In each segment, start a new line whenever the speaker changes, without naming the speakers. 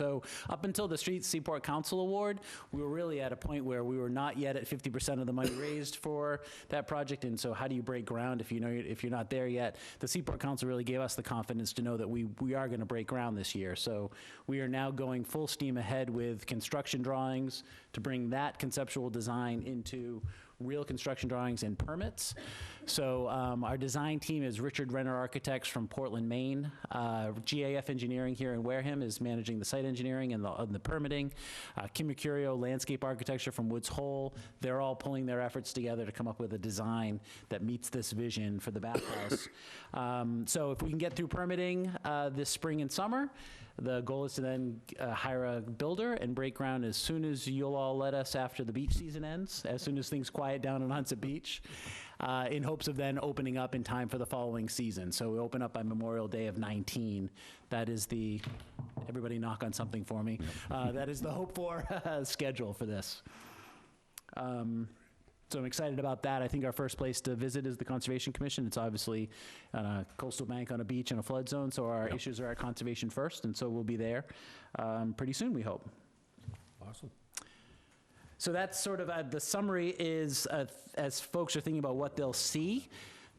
So up until the Street Seaport Council Award, we were really at a point where we were not yet at 50% of the money raised for that project. And so how do you break ground if you know, if you're not there yet? The Seaport Council really gave us the confidence to know that we, we are going to break ground this year. So we are now going full steam ahead with construction drawings to bring that conceptual design into real construction drawings and permits. So um, our design team is Richard Renner Architects from Portland, Maine. Uh, GAF Engineering here in Wareham is managing the site engineering and the, and the permitting. Uh, Kim Mercurio Landscape Architecture from Woods Hole. They're all pulling their efforts together to come up with a design that meets this vision for the bathhouse. um, so if we can get through permitting uh, this spring and summer, the goal is to then uh, hire a builder and break ground as soon as you'll all let us after the beach season ends, as soon as things quiet down on Hunsa Beach, uh, in hopes of then opening up in time for the following season. So we open up by Memorial Day of 19. That is the, everybody knock on something for me. Uh, that is the hope for schedule for this. Um, so I'm excited about that. I think our first place to visit is the Conservation Commission. It's obviously on a coastal bank, on a beach, in a flood zone, so our issues are at conservation first, and so we'll be there um, pretty soon, we hope.
Awesome.
So that's sort of, uh, the summary is, uh, as folks are thinking about what they'll see,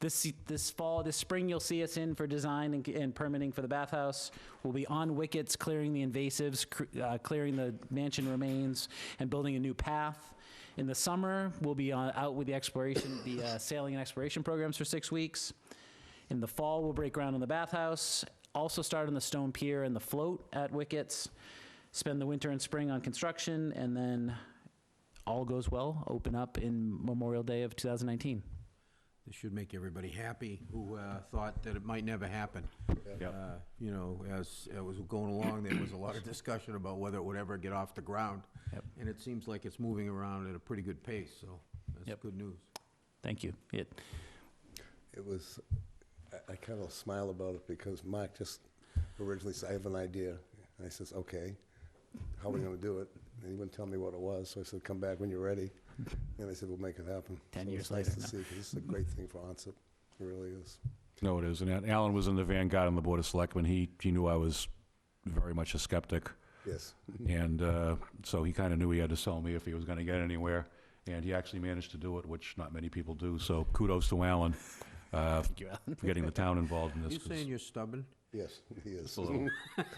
this, this fall, this spring, you'll see us in for design and- and permitting for the bathhouse. We'll be on wickets, clearing the invasives, cr- uh, clearing the mansion remains, and building a new path. In the summer, we'll be on- out with the exploration, the uh, sailing and exploration programs for six weeks. In the fall, we'll break ground on the bathhouse, also start on the stone pier and the float at Wickets, spend the winter and spring on construction, and then, all goes well, open up in Memorial Day of 2019.
This should make everybody happy who uh, thought that it might never happen. Uh, You know, as it was going along, there was a lot of discussion about whether it would ever get off the ground.
Yep.
And it seems like it's moving around at a pretty good pace, so that's
Yep.
good news.
Thank you. It,
It was, I- I kind of smile about it because Mark just originally said, I have an idea. And I says, okay, how are we going to do it? And he wouldn't tell me what it was, so I said, come back when you're ready. And they said, we'll make it happen.
10
So
years
it's nice
later,
to
no.
see, 'cause this is a great thing for onset. It really is.
No, it isn't. And Alan was in the vanguard on the Board of Selectmen. He, he knew I was very much a skeptic,
Yes.
Mm-hmm.
and uh, so he kind of knew he had to sell me if he was going to get anywhere, and he actually managed to do it, which not many people do, so kudos to Alan uh,
thank you, Alan.
for getting the town involved in
You
this. 'cause
saying you're stubborn?
Yes, he is.
a little-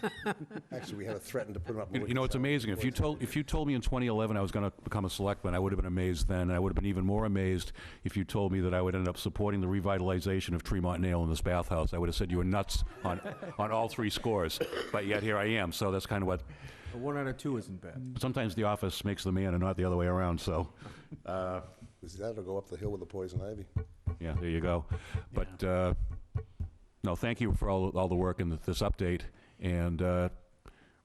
Actually, we had to threaten to put him up. in
You you know, it's
Wicked
amazing. If you told, if you told me in 2011 I was going to become a selectman, I would have been amazed then, and I would have been even more amazed if you told me that I would end up supporting the revitalization of Tremont Nail in this bathhouse. I would have said you were nuts on, on all three scores, but yet here I am, so that's kind of what,
A one out of two isn't bad.
sometimes the office makes the man and not the other way around, so, uh,
Is That'll go up the hill with the poison ivy.
yeah, there you go. But, uh, no, thank you for all, all the work and this update, and uh,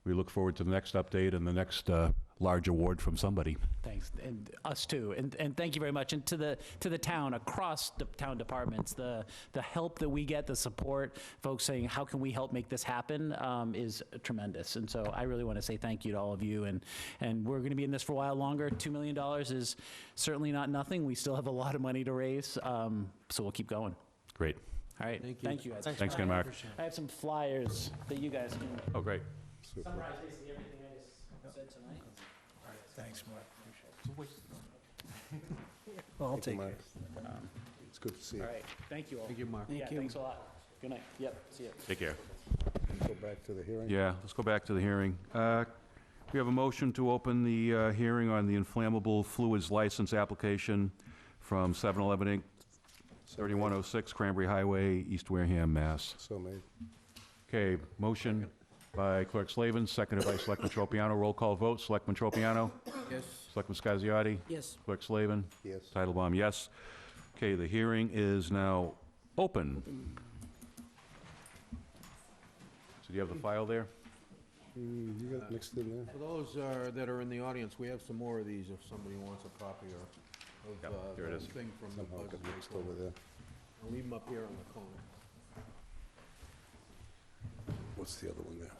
we look forward to the next update and the next uh, large award from somebody.
Thanks, and us too, and, and thank you very much, and to the, to the town, across the town departments, the, the help that we get, the support, folks saying, how can we help make this happen, um, is tremendous, and so I really want to say thank you to all of you, and, and we're going to be in this for a while longer, $2 million is certainly not nothing, we still have a lot of money to raise, um, so we'll keep going.
Great.
All right,
Thank you.
thank you guys.
Thanks again, Mark.
I have some flyers that you guys can
Oh, great.
Super.
summarize basically everything I just said tonight.
Well, I'll
Thank
take
you,
it.
Mark. It's good to see you.
All right, thank you all.
Thank you, Mark.
Yeah, thanks a lot. Good night. Yep, see you.
Take care.
Go back to the hearing.
Yeah, let's go back to the hearing. Uh, We have a motion to open the uh, hearing on the inflammable fluids license application from 7-Eleven Inc., 3106 Cranberry Highway, East Wareham, Mass.
So made.
Okay, motion by Clerk Slavin, seconded by Selectman Tropiano. Roll call vote, Selectman Tropiano,
Yes.
Selectman Scasiotti,
Yes,
Clerk Slavin,
Yes.
Titlebaum, yes. Okay, the hearing is now open. So do you have the file there?
Mm, You got it mixed in there.
For those uh, that are in the audience, we have some more of these if somebody wants a copy or
Yep,
of uh,
here it
the
is.
thing from the
Somehow it
Buzzard
Oh, got mixed
Makeover.
over there.
I'll leave them up here on the corner.
What's the other one there?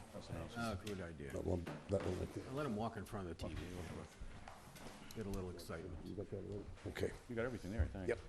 Ah, good idea.
That one, that one right there.
Let him walk in front of the TV real quick. Get a little excitement.
You got that one? Okay.
You got everything there, I think.
Yep.